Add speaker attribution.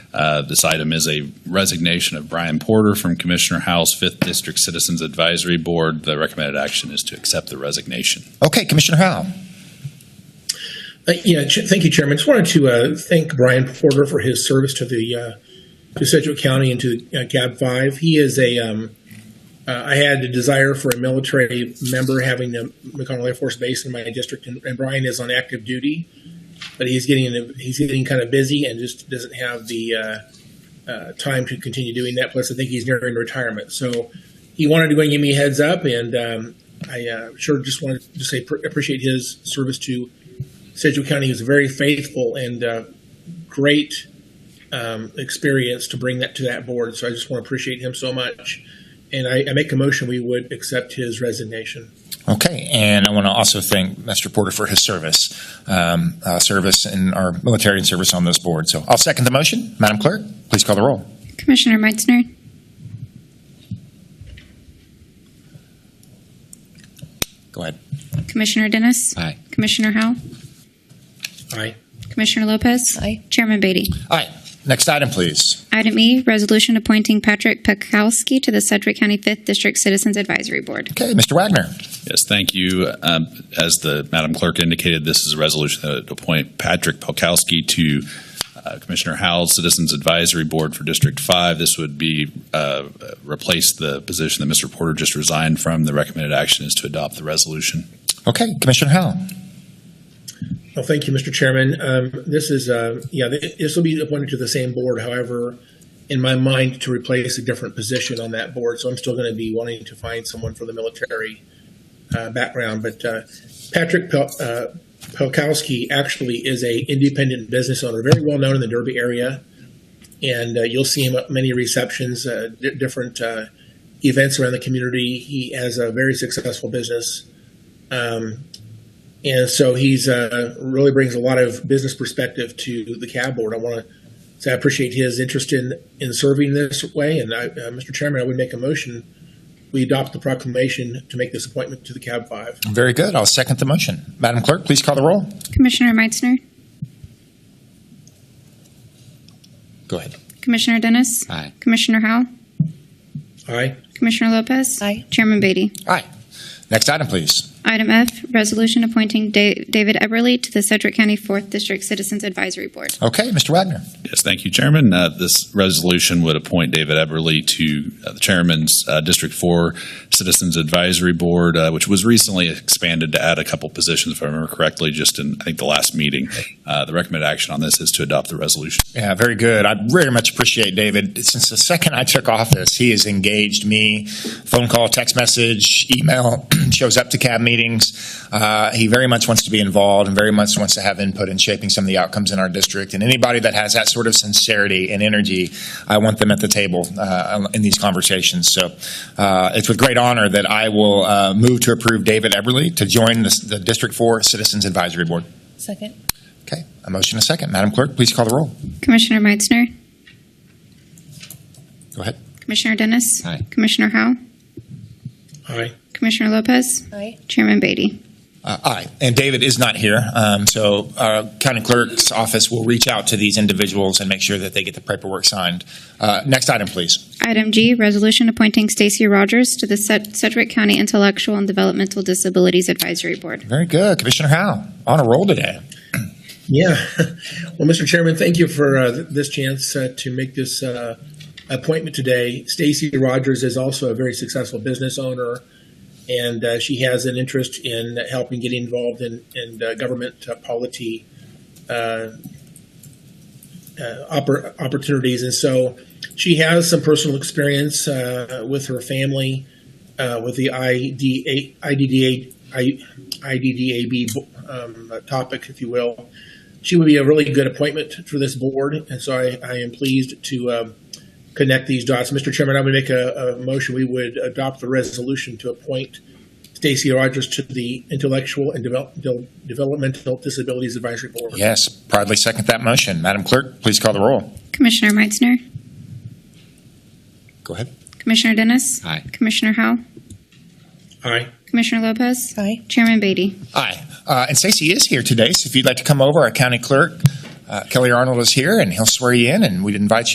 Speaker 1: Uh, This item is a resignation of Brian Porter from Commissioner Howell's Fifth District Citizens Advisory Board. The recommended action is to accept the resignation.
Speaker 2: Okay, Commissioner Howell.
Speaker 3: Uh, Yeah, Ch- thank you, Chairman. Just wanted to uh, thank Brian Porter for his service to the, uh, to Sedgwick County and to uh, Cab 5. He is a, um, uh, I had a desire for a military member having the McConnell Air Force Base in my district, and and Brian is on active duty, but he's getting, he's getting kind of busy and just doesn't have the uh, uh, time to continue doing that. Plus, I think he's nearing retirement. So he wanted to go and give me a heads up, and um, I uh, sure just wanted to say pr- appreciate his service to Sedgwick County was very faithful and uh, great um, experience to bring that to that board. So I just want to appreciate him so much. And I, I make a motion we would accept his resignation.
Speaker 2: Okay, and I want to also thank Mr. Porter for his service, um, uh, service in our military and service on this board. So I'll second the motion. Madam Clerk, please call the roll.
Speaker 4: Commissioner Meitzner,
Speaker 2: Go ahead.
Speaker 4: Commissioner Dennis.
Speaker 2: Aye.
Speaker 4: Commissioner Howell,
Speaker 3: Aye.
Speaker 4: Commissioner Lopez.
Speaker 5: Aye.
Speaker 4: Chairman Beatty.
Speaker 2: Next item, please.
Speaker 4: Item E, resolution appointing Patrick Pekowski to the Sedgwick County Fifth District Citizens Advisory Board.
Speaker 2: Okay, Mr. Wagner.
Speaker 1: Yes, thank you. Um, As the Madam Clerk indicated, this is a resolution that would appoint Patrick Polkowski to uh, Commissioner Howell's Citizens Advisory Board for District 5. This would be, uh, replace the position that Mr. Porter just resigned from. The recommended action is to adopt the resolution.
Speaker 2: Okay, Commissioner Howell.
Speaker 3: Well, thank you, Mr. Chairman. Um, this is, uh, yeah, th- this will be appointed to the same board. However, in my mind, to replace a different position on that board. So I'm still going to be wanting to find someone for the military uh, background. But uh, Patrick Pel- uh, Pelkowski actually is a independent business owner, very well known in the Derby area, and uh, you'll see him at many receptions, uh, di different uh, events around the community. He has a very successful business. Um, and so he's uh, really brings a lot of business perspective to the cab board. I want to say I appreciate his interest in in serving this way. And I, uh, Mr. Chairman, I would make a motion we adopt the proclamation to make this appointment to the cab five.
Speaker 2: Very good. I'll second the motion. Madam Clerk, please call the roll.
Speaker 4: Commissioner Meitzner,
Speaker 2: Go ahead.
Speaker 4: Commissioner Dennis.
Speaker 2: Aye.
Speaker 4: Commissioner Howell,
Speaker 3: Aye.
Speaker 4: Commissioner Lopez.
Speaker 5: Aye.
Speaker 4: Chairman Beatty.
Speaker 2: Next item, please.
Speaker 4: Item F, resolution appointing Da- David Eberly to the Sedgwick County Fourth District Citizens Advisory Board.
Speaker 2: Okay, Mr. Wagner.
Speaker 1: Yes, thank you, Chairman. Uh, This resolution would appoint David Eberly to uh, the Chairman's uh, District 4 Citizens Advisory Board, uh, which was recently expanded to add a couple positions, if I remember correctly, just in, I think, the last meeting. Uh, The recommended action on this is to adopt the resolution.
Speaker 2: Yeah, very good. I very much appreciate David. Since the second I took office, he has engaged me phone call, text message, email, shows up to cab meetings. Uh, he very much wants to be involved and very much wants to have input in shaping some of the outcomes in our district. And anybody that has that sort of sincerity and energy, I want them at the table uh, in these conversations. So uh, it's with great honor that I will uh, move to approve David Eberly to join the, the District 4 Citizens Advisory Board.
Speaker 5: Second.
Speaker 2: Okay, a motion and a second. Madam Clerk, please call the roll.
Speaker 4: Commissioner Meitzner,
Speaker 2: Go ahead.
Speaker 4: Commissioner Dennis.
Speaker 2: Aye.
Speaker 4: Commissioner Howell,
Speaker 3: Aye.
Speaker 4: Commissioner Lopez.
Speaker 5: Aye.
Speaker 4: Chairman Beatty.
Speaker 2: Uh, Aye, and David is not here, um, so our county clerk's office will reach out to these individuals and make sure that they get the paperwork signed. Uh, Next item, please.
Speaker 4: Item G, resolution appointing Stacy Rogers to the Sed- Sedgwick County Intellectual and Developmental Disabilities Advisory Board.
Speaker 2: Very good, Commissioner Howe, on a roll today.
Speaker 3: Yeah. Well, Mr. Chairman, thank you for uh, th- this chance uh, to make this uh, appointment today. Stacy Rogers is also a very successful business owner, and uh, she has an interest in helping get involved in, in uh, government uh, polity uh, uh, oppor- opportunities. And so she has some personal experience uh, with her family, uh, with the IDA, IDDA, I, IDDAB um, topic, if you will she would be a really good appointment for this board, and so I, I am pleased to um, connect these dots. Mr. Chairman, I would make a, a motion we would adopt the resolution to appoint Stacy Rogers to the Intellectual and Devel- Del- Developmental Disabilities Advisory Board.
Speaker 2: Yes, proudly second that motion. Madam Clerk, please call the roll.
Speaker 4: Commissioner Meitzner,
Speaker 2: Go ahead.
Speaker 4: Commissioner Dennis. Aye. Commissioner Howell,
Speaker 3: Aye.
Speaker 4: Commissioner Lopez.
Speaker 5: Aye.
Speaker 4: Chairman Beatty.
Speaker 2: Aye, Uh, and Stacy is here today, so if you'd like to come over, our county clerk uh, Uh, Kelly Arnold is here, and he'll swear you in, and we'd invite you.